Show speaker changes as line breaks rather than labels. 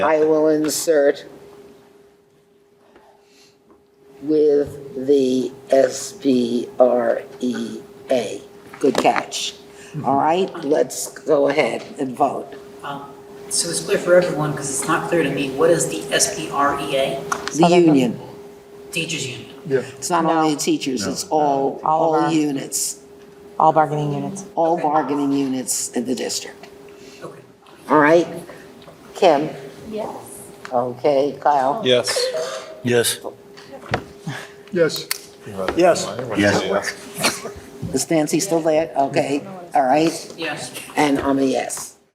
I will insert with the SBREA. E Good catch. All right, let's go ahead and vote.
Um, So it's clear for everyone, because it's not clear to me, what is the SPREA?
The union.
E Teachers Union.
Yeah,
It's not only the teachers, it's all, all
All of our-
units,
all bargaining units.
all
Okay.
bargaining units in the district.
Okay.
All right? Kim?
Yes.
Okay, Kyle?
Yes.
Yes.
yes.
Yes.
Is Nancy still there? Okay, all right.
Yes.
And I'm a yes.